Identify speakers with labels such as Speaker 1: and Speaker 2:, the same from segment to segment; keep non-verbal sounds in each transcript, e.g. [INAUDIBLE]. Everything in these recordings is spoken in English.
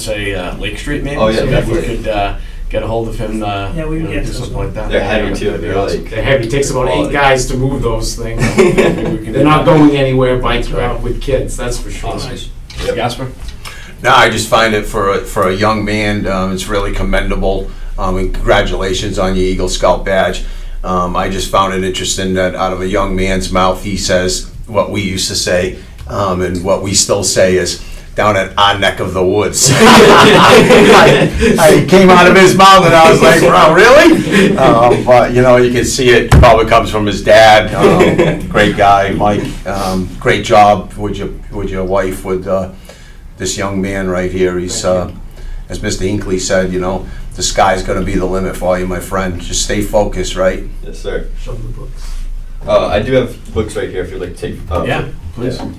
Speaker 1: say uh, Lake Street maybe.
Speaker 2: Oh, yeah,
Speaker 1: so maybe we
Speaker 2: definitely.
Speaker 1: could uh, get a hold of him. Uh,
Speaker 3: Yeah, we
Speaker 1: you
Speaker 3: can
Speaker 1: know,
Speaker 3: get
Speaker 1: do
Speaker 3: those
Speaker 1: something
Speaker 3: going.
Speaker 1: like that.
Speaker 2: They're heavy too,
Speaker 1: That'd be
Speaker 2: they're
Speaker 1: awesome.
Speaker 2: like-
Speaker 4: They're heavy, takes about eight
Speaker 2: Quality.
Speaker 4: guys to move those things.
Speaker 1: Maybe we can
Speaker 4: They're
Speaker 1: do
Speaker 4: not
Speaker 1: that.
Speaker 4: going anywhere by, uh, with kids, that's for sure.
Speaker 1: Awesome. Jasper.
Speaker 5: No, I just find it for a, for a young man, um, it's really commendable. Um, and congratulations on your Eagle Scout badge. Um, I just found it interesting that out of a young man's mouth, he says what we used to say, um, and what we still say is down at our neck of the woods. [LAUGHS] I, I came out of his mouth and I was like, wow, really? Um, but you know, you can see it probably comes from his dad. Um, great guy, Mike. Um, great job with your with your wife with. Uh, this young man right here, he's, uh, as Mr. Hinckley said, you know, the sky's gonna be the limit for you, my friend. Just stay focused, right?
Speaker 2: Yes, sir.
Speaker 4: Show them the books.
Speaker 2: Uh, I do have books right here if you'd like to take. Uh, [LAUGHS]
Speaker 1: Yeah, please.
Speaker 2: yeah.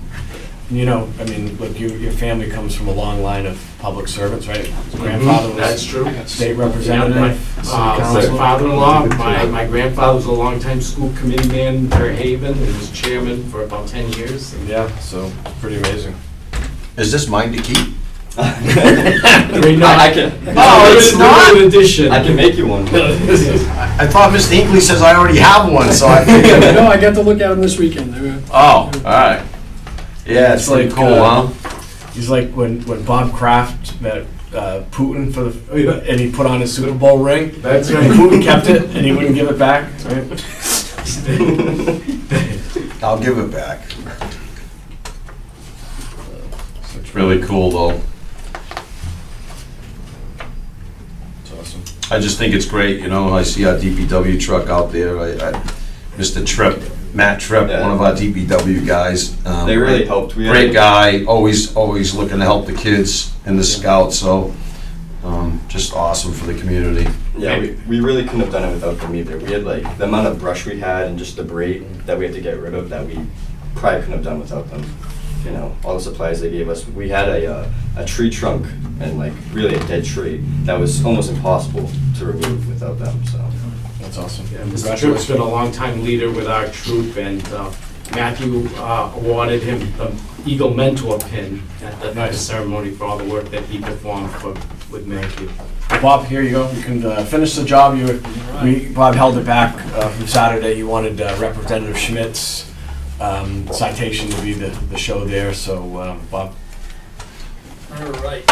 Speaker 1: You know, I mean, look, your, your family comes from a long line of public servants, right? His grandfather was
Speaker 4: Mm-hmm. That's true.
Speaker 1: state
Speaker 4: My
Speaker 1: representative, city
Speaker 4: uh, my
Speaker 1: council.
Speaker 4: father-in-law, my, my grandfather was a longtime school committee man for Haven, and was chairman for about ten years.
Speaker 1: Yeah, so pretty amazing.
Speaker 5: Is this mine to keep?
Speaker 4: Great night.
Speaker 2: I, I can.
Speaker 5: Oh, it's not?
Speaker 4: An addition. [LAUGHS]
Speaker 2: I can make you one.
Speaker 5: I thought Mr. Hinckley says I already have one, so I figured.
Speaker 6: No, I got to look at them this weekend. They were-
Speaker 5: [LAUGHS] Oh, alright. Yeah, it's pretty
Speaker 1: It's like,
Speaker 5: cool,
Speaker 1: uh,
Speaker 5: huh?
Speaker 1: He's like when, when Bob Kraft met uh, Putin for the,
Speaker 4: Oh, yeah.
Speaker 1: and he put on his Super Bowl ring.
Speaker 4: That's
Speaker 1: And
Speaker 4: right. [LAUGHS]
Speaker 1: Putin kept it and he wouldn't give it back, right?
Speaker 5: I'll give it back. It's really cool, though.
Speaker 1: It's awesome.
Speaker 5: I just think it's great, you know, I see our DPW truck out there, I, I, Mr. Tripp, Matt Tripp, one of our DPW guys. um,
Speaker 2: They really helped. We had-
Speaker 5: Great guy, always, always looking to help the kids and the scouts, so, um, just awesome for the community.
Speaker 2: Yeah, we, we really couldn't have done it without them either. We had like the amount of brush we had and just debris that we had to get rid of that we probably couldn't have done without them. You know, all the supplies they gave us. We had a, uh, a tree trunk and like really a dead tree that was almost impossible to remove without them. So
Speaker 1: That's awesome.
Speaker 4: Yeah, Mr. Tripp's
Speaker 1: Congratulations.
Speaker 4: been a longtime leader with our troop, and uh, Matthew uh, awarded him the Eagle Mentor pin at the
Speaker 1: Nice.
Speaker 4: ceremony for all the work that he performed for, with Matthew.
Speaker 1: Bob, here you go. You can uh, finish the job. You, were- we, Bob held it back uh, from Saturday. You wanted uh, Representative Schmidt's um, citation to be the, the show there. So, um, Bob,
Speaker 6: All right.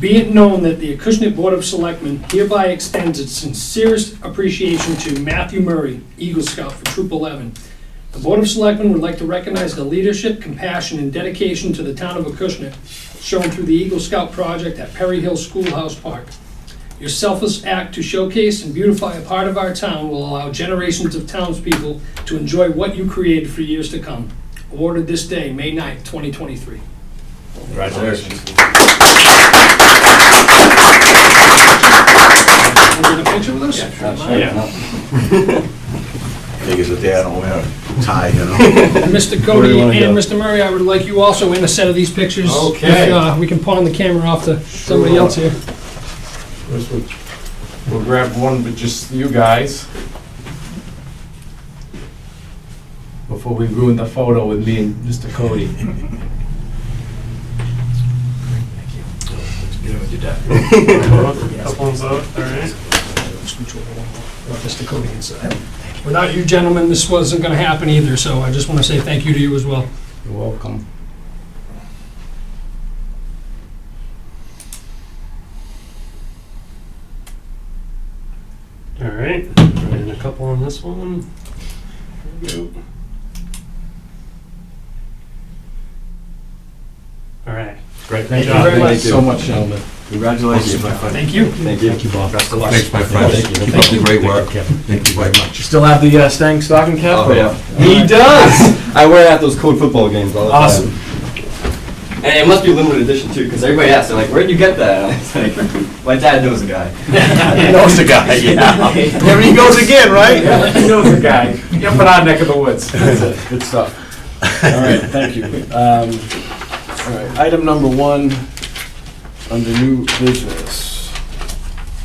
Speaker 6: Be it known that the Acushnet Board of Selectmen hereby extends its sincerest appreciation to Matthew Murray, Eagle Scout for Troop 11. The Board of Selectmen would like to recognize the leadership, compassion, and dedication to the town of Acushnet shown through the Eagle Scout project at Perry Hill Schoolhouse Park. Your selfless act to showcase and beautify a part of our town will allow generations of townspeople to enjoy what you created for years to come. Awarded this day, May 9th, 2023.
Speaker 1: congratulations.
Speaker 6: Want to get a picture with us?
Speaker 5: Niggas a day I don't wear a tie, you know?
Speaker 6: And Mr.
Speaker 5: Where do
Speaker 6: Cody
Speaker 5: you wanna
Speaker 6: and Mr. Murray, I would like you also in a set of these pictures.
Speaker 4: Okay.
Speaker 6: If, uh, We can pawn the camera off to somebody else here.
Speaker 4: This one. We'll grab one, but just you [LAUGHS] guys. Before we ruin the photo with me and Mr. Cody.
Speaker 6: Mr. Cody inside. Without you gentlemen, this wasn't going to happen either, so I just want to say thank you to you as well.
Speaker 4: You're welcome.
Speaker 7: All right, and a couple on this one. All right.
Speaker 1: Great.
Speaker 4: Thank you
Speaker 1: job.
Speaker 4: very much
Speaker 2: Thank you.
Speaker 4: so much, gentlemen.
Speaker 2: congratulations, my friend. Thank you. Thank you. Thank you, Bob. Best of luck.
Speaker 5: Thanks, my friend. Keep up the great work. Thank you very much.
Speaker 1: Still have the uh, staying stocking cap?
Speaker 2: Oh, yeah. He does. I wear it at those cold football games all the time.
Speaker 1: Awesome.
Speaker 2: And it must be limited edition too, because everybody asks, they're like, "Where'd you get that?" [LAUGHS] And I was like, "My dad knows a guy."
Speaker 5: Knows the guy, yeah. There he goes again, right?
Speaker 4: Yeah, [LAUGHS] he knows the guy. Up in our neck of the woods.
Speaker 1: That's it. Good stuff. All right, thank you. Um, all right, item number one under new business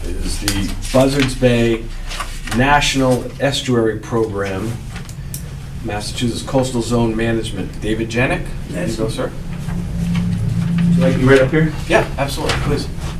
Speaker 1: is the Buzzards Bay National Estuary Program, Massachusetts Coastal Zone Management. David Janik, you go, sir.
Speaker 4: Like you right up here?
Speaker 1: Yeah, absolutely, please.